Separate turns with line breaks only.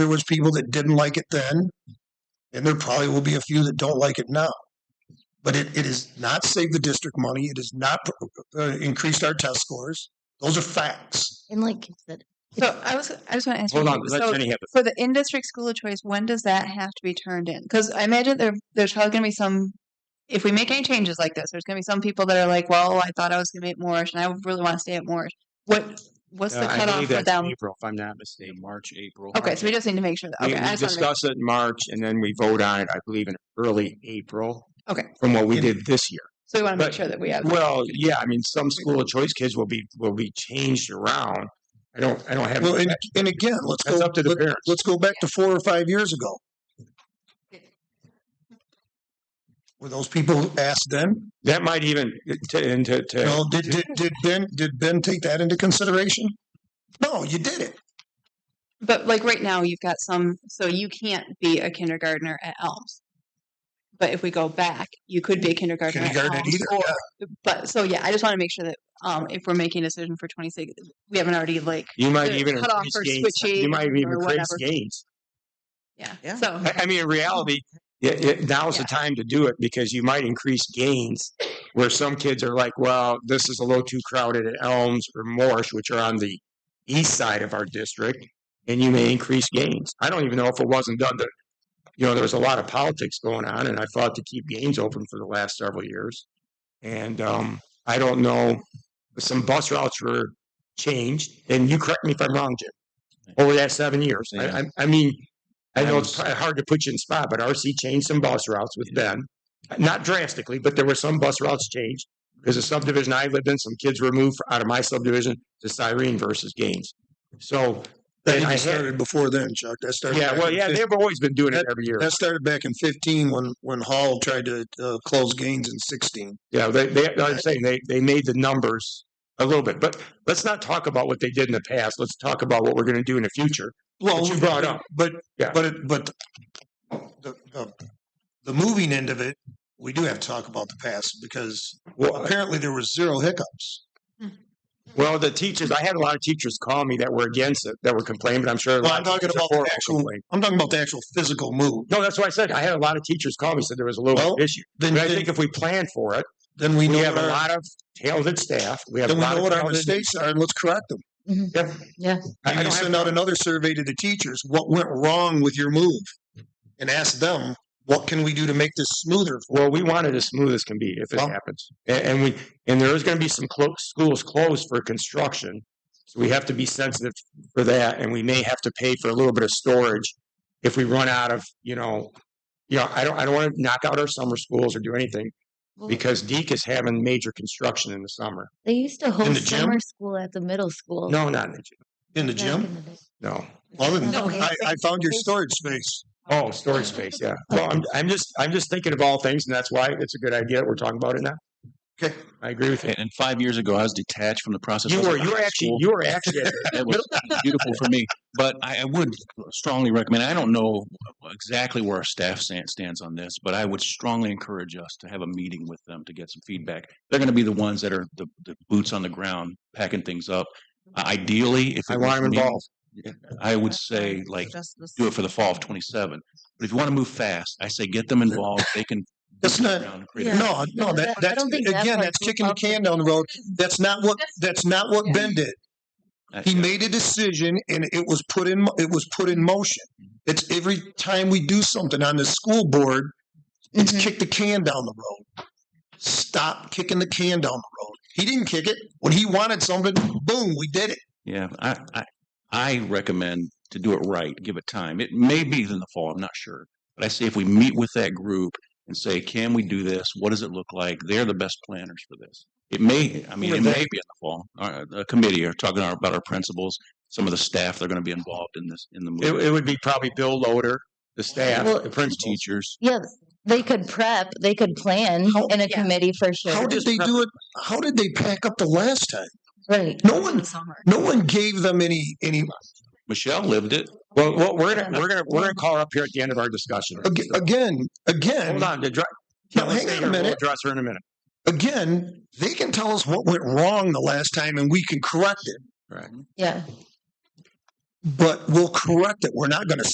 there was people that didn't like it then, and there probably will be a few that don't like it now. But it, it is not saved the district money. It has not uh, increased our test scores. Those are facts.
And like you said,
So I was, I just want to ask.
Hold
you,
on, let
so
Jenny have it.
For the in-district school of choice, when does that have to be turned in? Because I imagine there, there's probably going to be some, if we make any changes like this, there's going to be some people that are like, well, I thought I was going to be at Moorish and I really want to stay at Moorish. What, what's the
Uh, I
cutoff
believe
for
that's
them?
April, if I'm not mistaken, March, April.
Okay, so we just need to make sure that,
We
okay, I
we
just want
discuss it in March and then we vote on it, I believe, in early April.
Okay.
From what we
In-
did this year.
so we want to make
but-
sure that we have.
Well, yeah, I mean, some school of choice kids will be, will be changed around. I don't, I don't have.
Well, and, and again, let's go
That's up to the
let,
parents.
us go back to four or five years ago. Were those people asked then?
That might even, to, and to, to.
No, did, did, did Ben did Ben take that into consideration? No, you did it.
But like right now, you've got some, so you can't be a kindergartner at Elms. But if we go back, you could be a kindergartner. at
Kindergarten
Elms,
either,
or- But so yeah, I just want to make sure that um, if we're making a decision for 26, we haven't already like
You might
the
even
cutoff
increase
for
gains. You
switching
might even
or
increase
whatever.
gains.
yeah.
Yeah.
So
I, I mean, in reality, it, it, now's the time to do it because you might increase gains where some kids are like, well, this is a little too crowded at Elms or Morse, which are on the east side of our district, and you may increase gains. I don't even know if it wasn't done. To, you know, there was a lot of politics going on, and I fought to keep gains open for the last several years. And um, I don't know, some bus routes were changed, and you correct me if I'm wrong, Jim, over that seven years. I, I, I mean, I know it's probably hard to put you in spot, but RC changed some bus routes with Ben, not drastically, but there were some bus routes changed. Because the subdivision I lived in, some kids were moved out of my subdivision to Cyrene versus Gaines. So,
That
And I
even
had-
started before then, Chuck. That started.
yeah,
back
well,
in
yeah,
15.
they've always been doing it every year.
That started back in 15 when, when Hall tried to uh, close gains in 16.
Yeah, they, they, I'm saying they, they made the numbers a little bit, but let's not talk about what they did in the past. Let's talk about what we're going to do in the future.
Well,
That you brought up.
But,
Yeah.
but, it- but the, the, the moving end of it, we do have to talk about the past because
Well,
apparently there was zero hiccups.
well, the teachers, I had a lot of teachers call me that were against it, that were complaining, but I'm sure. a
Well,
lot
I'm
of
talking
teachers
about the
are for it,
actual,
complaining.
I'm talking about the actual physical move.
No, that's what I said. I had a lot of teachers call me, said there was a little bit of
Well,
issue.
Then,
But I
then,
think if we plan for it,
then we
we
know
have
what
a
our,
lot of talented staff. We have a
then we
lot
know
of
what our
talented-
mistakes are and let's correct them.
Yep.
Yeah.
I- I
And you
don't have-
send out another survey to the teachers, what went wrong with your move? And ask them, what can we do to make this smoother for
Well, we want it as smooth as can be if it
Well-
happens. And, and we, and there is going to be some clo- schools closed for construction. So we have to be sensitive for that. And we may have to pay for a little bit of storage if we run out of, you know, you know, I don't, I don't want to knock out our summer schools or do anything
well,
because Deke is having major construction in the summer.
they used to host
the gym?
summer school at the middle school.
No, not in the gym.
in the
back
gym?
in the day.
No.
Well, then,
No,
I, I found your storage space.
Oh, storage space. Yeah. Well, I'm, I'm just, I'm just thinking of all things and that's why it's a good idea. that We're talking about it now.
Okay.
I agree with you.
And- And five years ago, I was detached from the process. I
You
was
were,
like,
you were
"Ah,
actually,
school."
you were actually at
That was beautiful for me. But I, I would strongly recommend. I don't know exactly where our staff stand, stands on this, but I would strongly encourage us to have a meeting with them to get some feedback. They're going to be the ones that are the, the boots on the ground, packing things up. Uh, Ideally, if
I
it
want
was
him
me,
involved.
I would say like
Just this-
do it for the fall of twenty-seven. But if you want to move fast, I say get them involved. They can.
That's
boot
not-
around and create a
Yeah.
No, no,
No,
that,
that- I
that's,
don't think that
again,
part's
that's kicking the
up to-
can down the road. That's not what, that's not what Ben did.
plan.
He made a decision and it was put in, it was put in motion. It's every time we do something on the school board, it's
Mhm.
kick the can down the road. Stop kicking the can down the road. He didn't kick it. When he wanted something, boom, we did it.
Yeah, I, I I recommend to do it right. Give it time. It may be in the fall. I'm not sure, but I say if we meet with that group and say, "Can we do this? What does it look like?" They're the best planners for this. It may. I mean, it may be in the fall. Our, the committee are talking about our principals. Some of the staff they're going to be involved in this in the
It,
movie.
it would be probably Bill Loader, the staff,
Well-
the principal.
teachers.
Yeah, they could prep, they could plan
How-
in a
Yeah.
committee for sure.
How did they do it? How did they pack up the last time?
right.
No one,
summer.
no one gave them any, any,
Michelle lived it.
Well, well, we're gonna, we're gonna, we're gonna call her up here at the end of our discussion.
ag- again, again.
Hold on, the dri-
Now,
let's
hang
take
on a
her, we'll
minute.
Address her in a minute.
again, they can tell us what went wrong the last time and we can correct it,
Yeah.
but we'll correct it. We're not going to